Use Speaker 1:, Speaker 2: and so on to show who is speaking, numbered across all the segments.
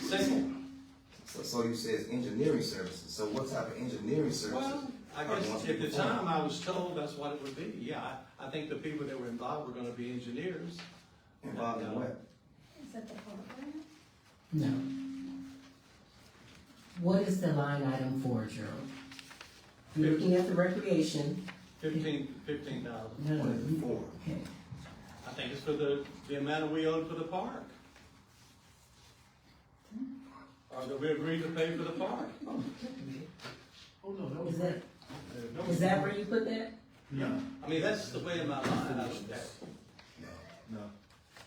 Speaker 1: signal.
Speaker 2: So, so you says engineering services, so what type of engineering services?
Speaker 1: Well, I
Speaker 2: are going
Speaker 1: guess
Speaker 2: to be
Speaker 1: at the
Speaker 2: performed?
Speaker 1: time, I was told that's what it would be, yeah, I, I think the people that were involved were gonna be engineers.
Speaker 2: Involved in what?
Speaker 3: Is that the program?
Speaker 4: No. What is the line item for, Gerald? You're looking at the recreation.
Speaker 1: Fifteen, fifteen thousand,
Speaker 4: No, no, you-
Speaker 2: Four.
Speaker 4: Okay.
Speaker 1: I think it's for the, the amount we owed for the park. Or that we agreed to pay for the park.
Speaker 4: Is that, is that where you put that?
Speaker 1: I mean, that's the way in my mind I looked at it.
Speaker 2: No. No.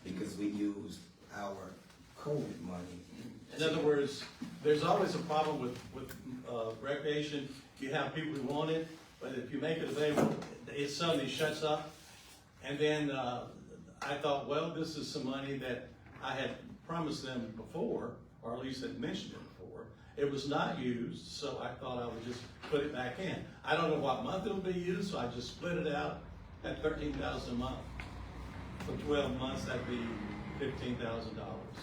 Speaker 2: Because we used our COVID money.
Speaker 1: In other words, there's always a problem with, with uh, recreation, you have people who want it, but if you make it available, it suddenly shuts up. And then, uh, I thought, well, this is some money that I had promised them before, or at least had mentioned it before. It was not used, so I thought I would just put it back in. I don't know what month it'll be used, so I just split it out at thirteen thousand a month. For twelve months, that'd be fifteen thousand dollars.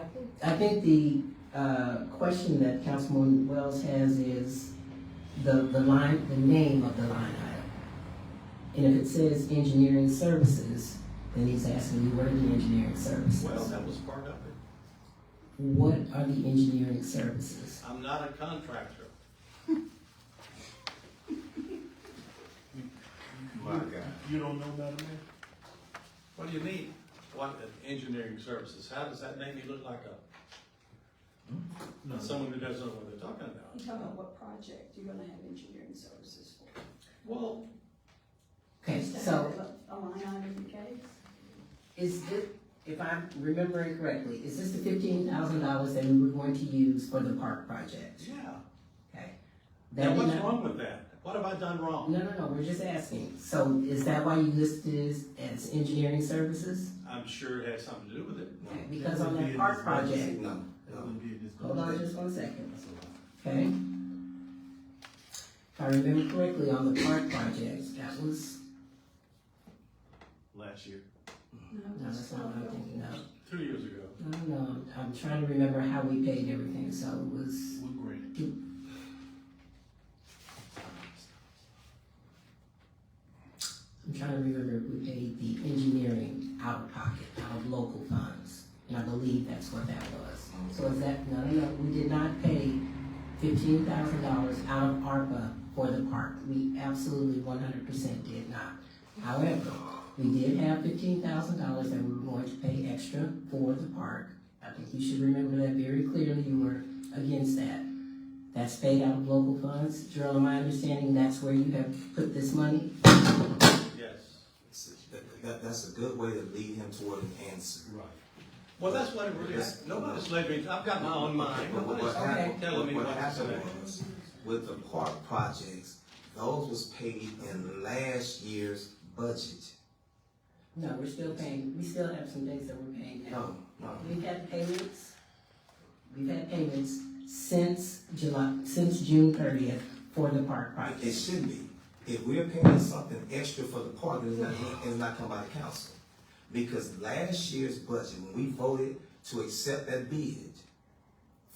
Speaker 4: I think- I think the, uh, question that Councilwoman Wells has is the, the line, the name of the line item. And if it says engineering services, then he's asking you, what are the engineering services?
Speaker 1: Well, that was part of it.
Speaker 4: What are the engineering services?
Speaker 1: I'm not a contractor.
Speaker 2: My God.
Speaker 5: You don't know, Madam Mayor?
Speaker 1: What do you mean? What, uh, engineering services? How does that make me look like a, someone who doesn't know what they're talking about?
Speaker 3: You talk about what project you're gonna have engineering services for.
Speaker 1: Well,
Speaker 4: Okay,
Speaker 3: Just to
Speaker 4: so
Speaker 3: have A a line item, okay?
Speaker 4: Is this, if I'm remembering correctly, is this the fifteen thousand dollars that we were going to use for the park project?
Speaker 1: yeah.
Speaker 4: Okay.
Speaker 1: Now,
Speaker 4: That
Speaker 1: what's
Speaker 4: did not-
Speaker 1: wrong with that? What have I done wrong?
Speaker 4: No, no, no, we're just asking. So is that why you listed this as engineering services?
Speaker 1: I'm sure it had something to do with it.
Speaker 4: Okay, Because on that park project,
Speaker 2: No, no.
Speaker 4: hold on just one second,
Speaker 2: That's a lie.
Speaker 4: okay? If I remember correctly, on the park project, that was,
Speaker 5: Last year.
Speaker 4: no, that's not what I'm thinking of.
Speaker 1: Two years ago.
Speaker 4: No, no, I'm trying to remember how we paid everything, so it was.
Speaker 5: We graded.
Speaker 4: I'm trying to remember, if we paid the engineering out of pocket, out of local funds, and I believe that's what that was. So is that, no, no, no, we did not pay fifteen thousand dollars out of ARPA for the park. We absolutely one hundred percent did not. However, we did have fifteen thousand dollars that we were going to pay extra for the park. I think you should remember that very clearly, you were against that. That's paid out of local funds. Gerald, am I understanding that's where you have put this money?
Speaker 1: Yes.
Speaker 2: It's- that- that- that's a good way to lead him toward an answer.
Speaker 1: Well, that's what it really is. Nobody's led me, I've got my own mind.
Speaker 2: But what-
Speaker 1: Nobody's
Speaker 2: what happened,
Speaker 1: telling me
Speaker 2: what
Speaker 1: what to say.
Speaker 2: happened was, with the park projects, those was paid in last year's budget.
Speaker 4: No, we're still paying, we still have some things that we're paying now.
Speaker 2: No, no.
Speaker 4: We've had payments, we've had payments since July, since June thirtieth for the park
Speaker 2: It
Speaker 4: project.
Speaker 2: should be. If we're paying something extra for the park, it's not, it's not come by the council. Because last year's budget, when we voted to accept that bid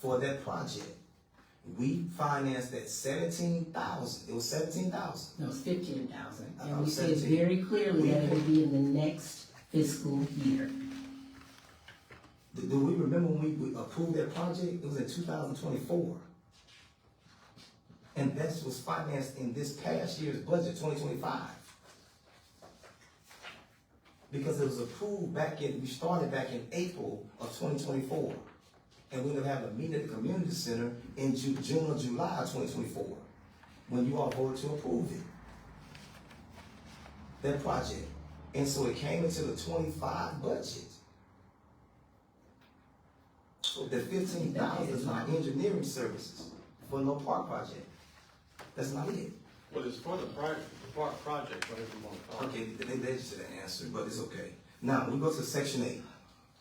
Speaker 2: for that project, we financed that seventeen thousand, it was seventeen thousand.
Speaker 4: No, it's fifteen thousand, and
Speaker 2: Uh,
Speaker 4: we said
Speaker 2: 17.
Speaker 4: very clearly that it would be in the next fiscal year.
Speaker 2: Do, do we remember when we, we approved that project? It was in two thousand twenty-four. And that was financed in this past year's budget, twenty twenty-five. Because it was approved back in, we started back in April of twenty twenty-four. And we're gonna have a meeting at the community center in Ju- June or July of twenty twenty-four, when you all voted to approve it that project. And so it came into the twenty-five budget. So the fifteen thousand is not engineering services for no park project. That's not it.
Speaker 1: Well, it's for the project, the park project, whatever you wanna call it.
Speaker 2: Okay, they, they just didn't answer, but it's okay. Now, we go to section eight.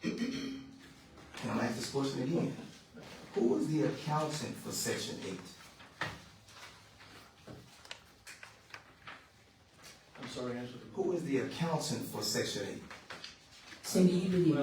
Speaker 2: And I'm ask this question again. Who is the accountant for section eight?
Speaker 1: I'm sorry, answer the.
Speaker 2: Who is the accountant for section eight?
Speaker 4: Cindy, you do the